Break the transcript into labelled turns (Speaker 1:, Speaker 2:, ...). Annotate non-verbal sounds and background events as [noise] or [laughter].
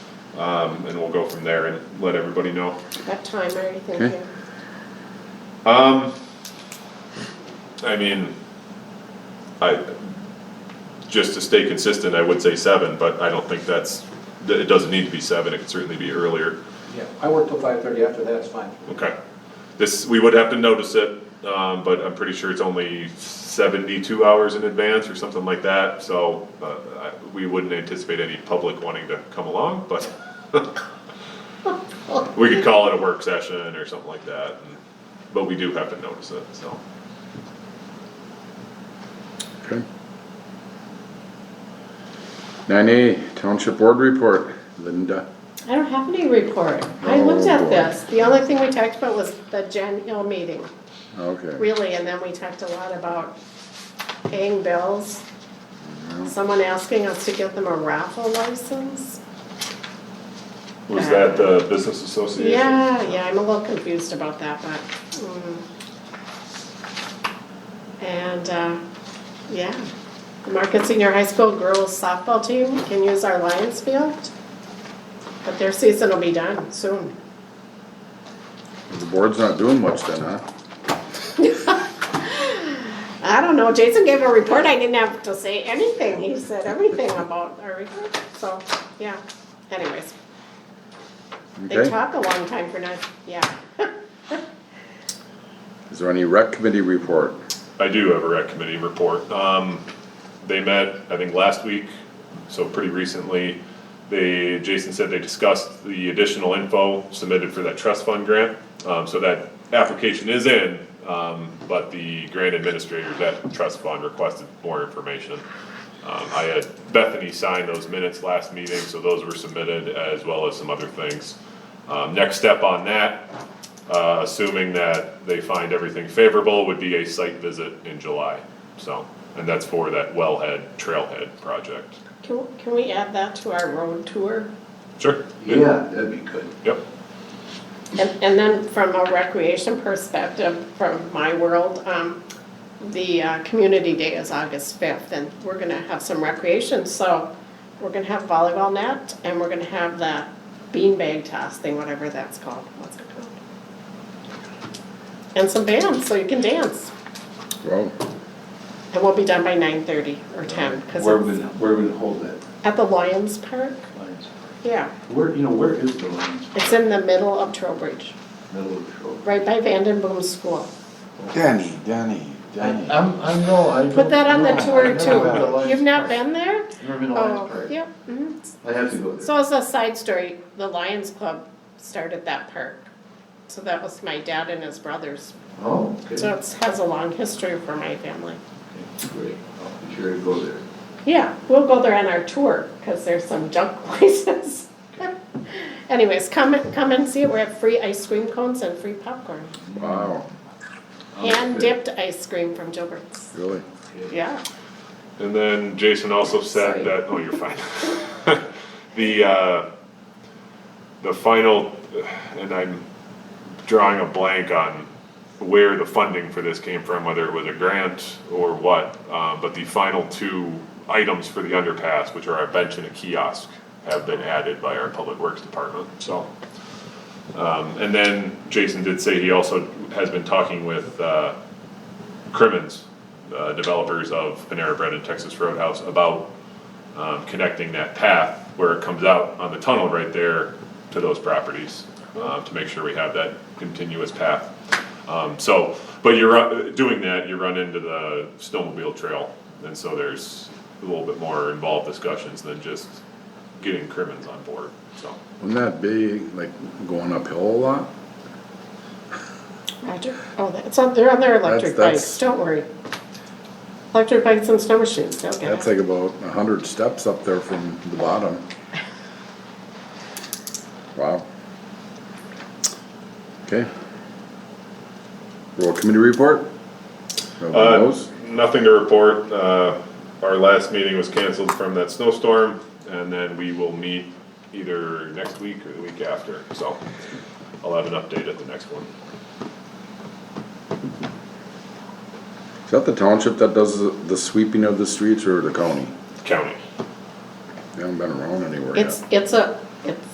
Speaker 1: um, and we'll go from there and let everybody know.
Speaker 2: What time are you thinking?
Speaker 1: Um, I mean, I, just to stay consistent, I would say seven, but I don't think that's, th- it doesn't need to be seven, it could certainly be earlier.
Speaker 3: Yeah, I work till five thirty, after that, it's fine.
Speaker 1: Okay. This, we would have to notice it, um, but I'm pretty sure it's only seventy-two hours in advance or something like that, so, uh, I, we wouldn't anticipate any public wanting to come along, but [laughs] we could call it a work session or something like that, and- but we do have to notice it, so.
Speaker 4: Okay. Nine A, Township Board Report, Linda.
Speaker 2: I don't have any report. I looked
Speaker 4: Oh,
Speaker 2: at
Speaker 4: boy.
Speaker 2: this. The only thing we talked about was the Jen Hill meeting,
Speaker 4: Okay.
Speaker 2: really, and then we talked a lot about paying bills.
Speaker 4: Mm-hmm.
Speaker 2: Someone asking us to get them a raffle license.
Speaker 1: Was that the business association?
Speaker 2: Yeah, yeah, I'm a little confused about that, but, mm. And, uh, yeah, the Market Senior High School girls softball team can use our Lions field, but their season will be done soon.
Speaker 4: The board's not doing much then, huh?
Speaker 2: I don't know, Jason gave a report, I didn't have to say anything, he said everything about our report, so, yeah, anyways. They
Speaker 4: Okay.
Speaker 2: talk a long time for not, yeah. [laughs]
Speaker 4: Is there any rec committee report?
Speaker 1: I do have a rec committee report. Um, they met, I think, last week, so pretty recently. They, Jason said they discussed the additional info submitted for that trust fund grant. Um, so that application is in, um, but the grant administrator, that trust fund requested more information. Um, I had Bethany sign those minutes last meeting, so those were submitted as well as some other things. Um, next step on that uh, assuming that they find everything favorable, would be a site visit in July. So, and that's for that wellhead, trailhead project.
Speaker 2: Can, can we add that to our road tour?
Speaker 1: Sure.
Speaker 3: Yeah, that'd be good.
Speaker 1: Yep,
Speaker 2: And, and then from a recreation perspective, from my world, um, the, uh, community day is August fifth, and we're gonna have some recreation, so we're gonna have volleyball net, and we're gonna have that beanbag toss thing, whatever that's called, what's it called? And some bands, so you can dance,
Speaker 4: Well,
Speaker 2: and we'll be done by nine thirty or ten, cause
Speaker 3: Where would,
Speaker 2: it's
Speaker 3: where would it hold that?
Speaker 2: at the Lions Park,
Speaker 3: Lions?
Speaker 2: yeah,
Speaker 3: Where, you know, where is the Lions,
Speaker 2: it's in the middle of Trowbridge,
Speaker 3: middle of the show?
Speaker 2: right by Vanden Boom's school.
Speaker 4: Danny, Danny, Danny.
Speaker 3: I'm, I'm, no, I
Speaker 2: Put that on the tour
Speaker 3: too.
Speaker 2: too. You've not been there?
Speaker 3: Never been to Lions
Speaker 2: Oh,
Speaker 3: Park.
Speaker 2: yep. mhm.
Speaker 3: I have to go there.
Speaker 2: So as a side story, the Lions Club started that park. So that was my dad and his brothers.
Speaker 3: Oh, okay.
Speaker 2: So it has a long history for my family.
Speaker 3: Okay, Great, I'll be sure to go there.
Speaker 2: Yeah, we'll go there on our tour because there's some junk [laughs] places. Anyways, come, come and see it. We have free ice cream cones and free popcorn.
Speaker 4: Wow,
Speaker 2: Hand dipped ice cream from Gilbert's.
Speaker 4: really?
Speaker 3: Okay.
Speaker 2: Yeah.
Speaker 1: and then Jason also
Speaker 2: Sorry.
Speaker 1: said that, oh, you're fine. [laughs] The, uh, the final, and I'm drawing a blank on where the funding for this came from, whether it was a grant or what. Uh, but the final two items for the underpass, which are our bench and a kiosk, have been added by our public works department, so. Um, and then Jason did say he also has been talking with, uh, Crimmins, uh, developers of Panera Bread and Texas Roadhouse about, um, connecting that path where it comes out on the tunnel right there to those properties, uh, to make sure we have that continuous path. Um, so, but you're, uh, doing that, you run into the snowmobile trail, and so there's a little bit more involved discussions than just getting Crimmins on board, so.
Speaker 4: Wouldn't that be like going uphill a lot?
Speaker 2: Roger. Oh, that's on, they're on their electric
Speaker 4: That's-
Speaker 2: bikes, don't worry. Electric bikes and snow machines, they'll get
Speaker 4: That's
Speaker 2: it.
Speaker 4: like about a hundred steps up there from the bottom. Wow. Okay. Road committee report? Nobody
Speaker 1: Uh,
Speaker 4: knows?
Speaker 1: Nothing to report. Uh, Our last meeting was canceled from that snowstorm, and then we will meet either next week or the week after. So I'll have an update at the next one.
Speaker 4: Is that the township that does the- the sweeping of the streets or the county?
Speaker 1: County.
Speaker 4: They haven't been around anywhere yet.
Speaker 2: It's, it's a, it's